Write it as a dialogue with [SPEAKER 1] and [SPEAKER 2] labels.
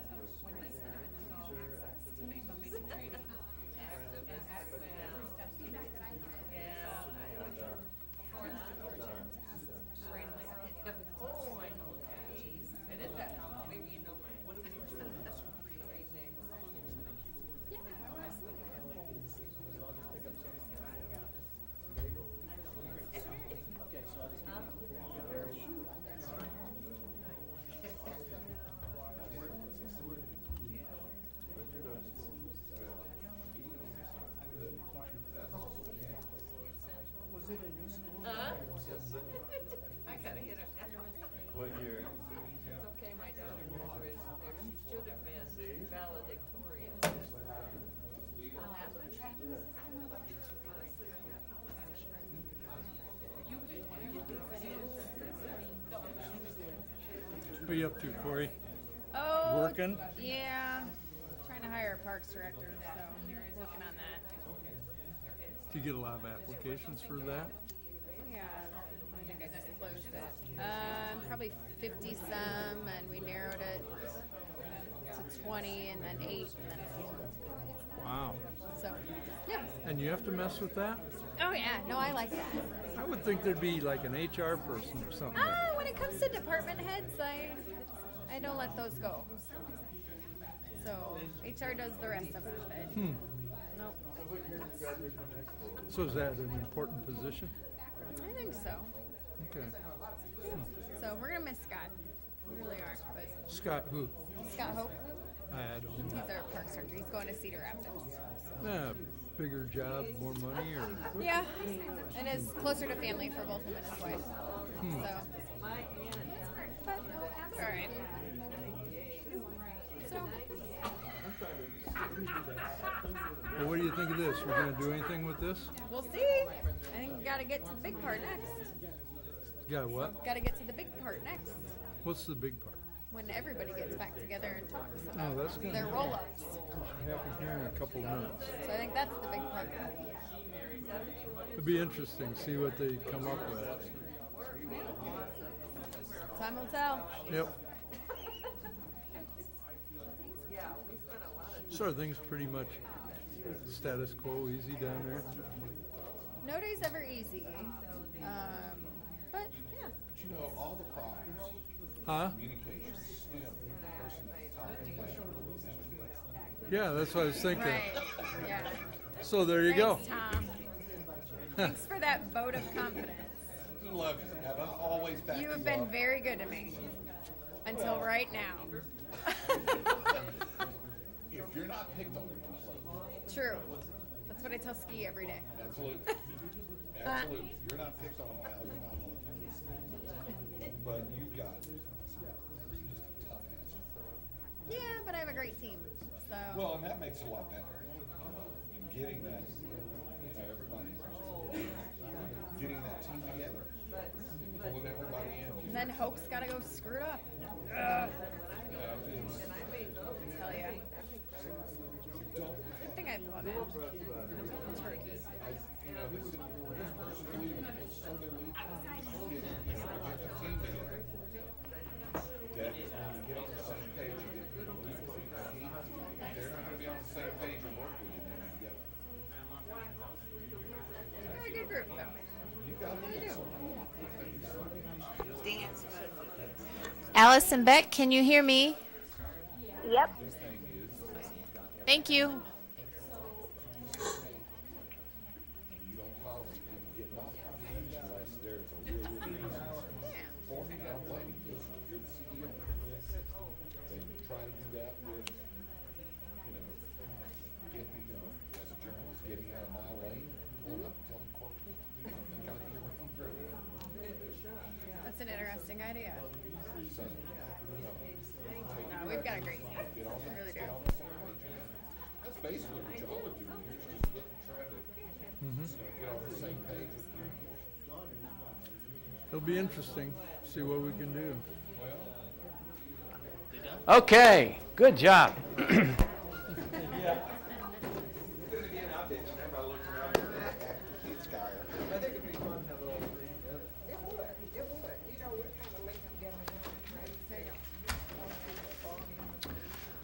[SPEAKER 1] are you up to, Corey?
[SPEAKER 2] Oh,
[SPEAKER 1] Working?
[SPEAKER 2] Yeah, trying to hire a parks director, so working on that.
[SPEAKER 1] Do you get a lot of applications for that?
[SPEAKER 2] Yeah, I think I disclosed it. Um, probably fifty some, and we narrowed it to twenty, and then eight, and then four.
[SPEAKER 1] Wow.
[SPEAKER 2] So, yeah.
[SPEAKER 1] And you have to mess with that?
[SPEAKER 2] Oh yeah, no, I like that.
[SPEAKER 1] I would think there'd be like an HR person or something.
[SPEAKER 2] Ah, when it comes to department heads, I I don't let those go. So HR does the rest of it. but- Nope.
[SPEAKER 1] Hmm. So is that an important position?
[SPEAKER 2] I think so.
[SPEAKER 1] Okay.
[SPEAKER 2] So we're gonna miss Scott. We really are. But
[SPEAKER 1] Scott who?
[SPEAKER 2] Scott Hope,
[SPEAKER 1] I don't
[SPEAKER 2] he's
[SPEAKER 1] know.
[SPEAKER 2] our park director. He's going to Cedar Rapids.
[SPEAKER 1] Nah, Uh, bigger job, more money or?
[SPEAKER 2] Yeah, and is closer to family for both him and his wife. So, but oh, it's all right. So
[SPEAKER 1] Well, what do you think of this? We're gonna do anything with this?
[SPEAKER 2] we'll see. I think we gotta get to the big part next.
[SPEAKER 1] Got what?
[SPEAKER 2] Gotta get to the big part next.
[SPEAKER 1] What's the big part?
[SPEAKER 2] When everybody gets back together and talks
[SPEAKER 1] Oh,
[SPEAKER 2] about
[SPEAKER 1] that's gonna
[SPEAKER 2] their
[SPEAKER 1] happen.
[SPEAKER 2] roll-ups.
[SPEAKER 1] Happen here in a couple minutes.
[SPEAKER 2] So I think that's the big part.
[SPEAKER 1] It'd be interesting, see what they come up with.
[SPEAKER 2] Time will tell.
[SPEAKER 1] Yep. So are things pretty much status quo, easy down there?
[SPEAKER 2] No day's ever easy. Um, but yeah.
[SPEAKER 3] You know, all the problems,
[SPEAKER 1] Huh?
[SPEAKER 3] communication, STEM, person,
[SPEAKER 1] Yeah, that's what I was thinking.
[SPEAKER 2] Right. Yeah.
[SPEAKER 1] So there you go.
[SPEAKER 2] Thanks, Tom. Thanks for that vote of confidence.
[SPEAKER 3] you love you, have I always backed
[SPEAKER 2] You have been
[SPEAKER 3] up.
[SPEAKER 2] very good to me until right now.
[SPEAKER 3] If you're not picked on, you're not loved.
[SPEAKER 2] True. That's what I tell Ski every day.
[SPEAKER 3] absolutely, absolutely, you're not picked on, pal, you're not loved. But you've got just a tough ass.
[SPEAKER 2] Yeah, but I have a great team. So
[SPEAKER 3] Well, and that makes it a lot better, you know, in getting that, you know, everybody, getting that team together, pulling everybody in.
[SPEAKER 2] and then Hope's gotta go screwed up.
[SPEAKER 3] You know, it's-
[SPEAKER 2] I tell ya. Good thing I love it. Turkey.
[SPEAKER 3] You know, this, this person leaving, it's so they leave. Get- get the team together. That, you get on the same page, you get, you leave the team. If they're not gonna be on the same page and work with you, then you get,
[SPEAKER 2] They're a good group though.
[SPEAKER 3] you gotta lead someone.
[SPEAKER 4] Allison Beck, can you hear me?
[SPEAKER 5] Yep.
[SPEAKER 4] Thank you.
[SPEAKER 3] You don't follow, you don't get off, unless there's a real good reason for it. I don't blame you, because you're the CEO. They try to do that with, you know, getting, you know, as a journalist, getting out of my lane, going up, telling corporate, you know, they gotta be around growth.
[SPEAKER 2] That's an interesting idea.
[SPEAKER 3] So, you know,
[SPEAKER 2] No, we've got a great team.
[SPEAKER 3] get on
[SPEAKER 2] We
[SPEAKER 3] the,
[SPEAKER 2] really do.
[SPEAKER 3] get on the same page. That's basically what y'all are doing, you're just getting, trying to, you know, get on the same page with your
[SPEAKER 1] It'll be interesting, see what we can do.
[SPEAKER 6] Okay, good job.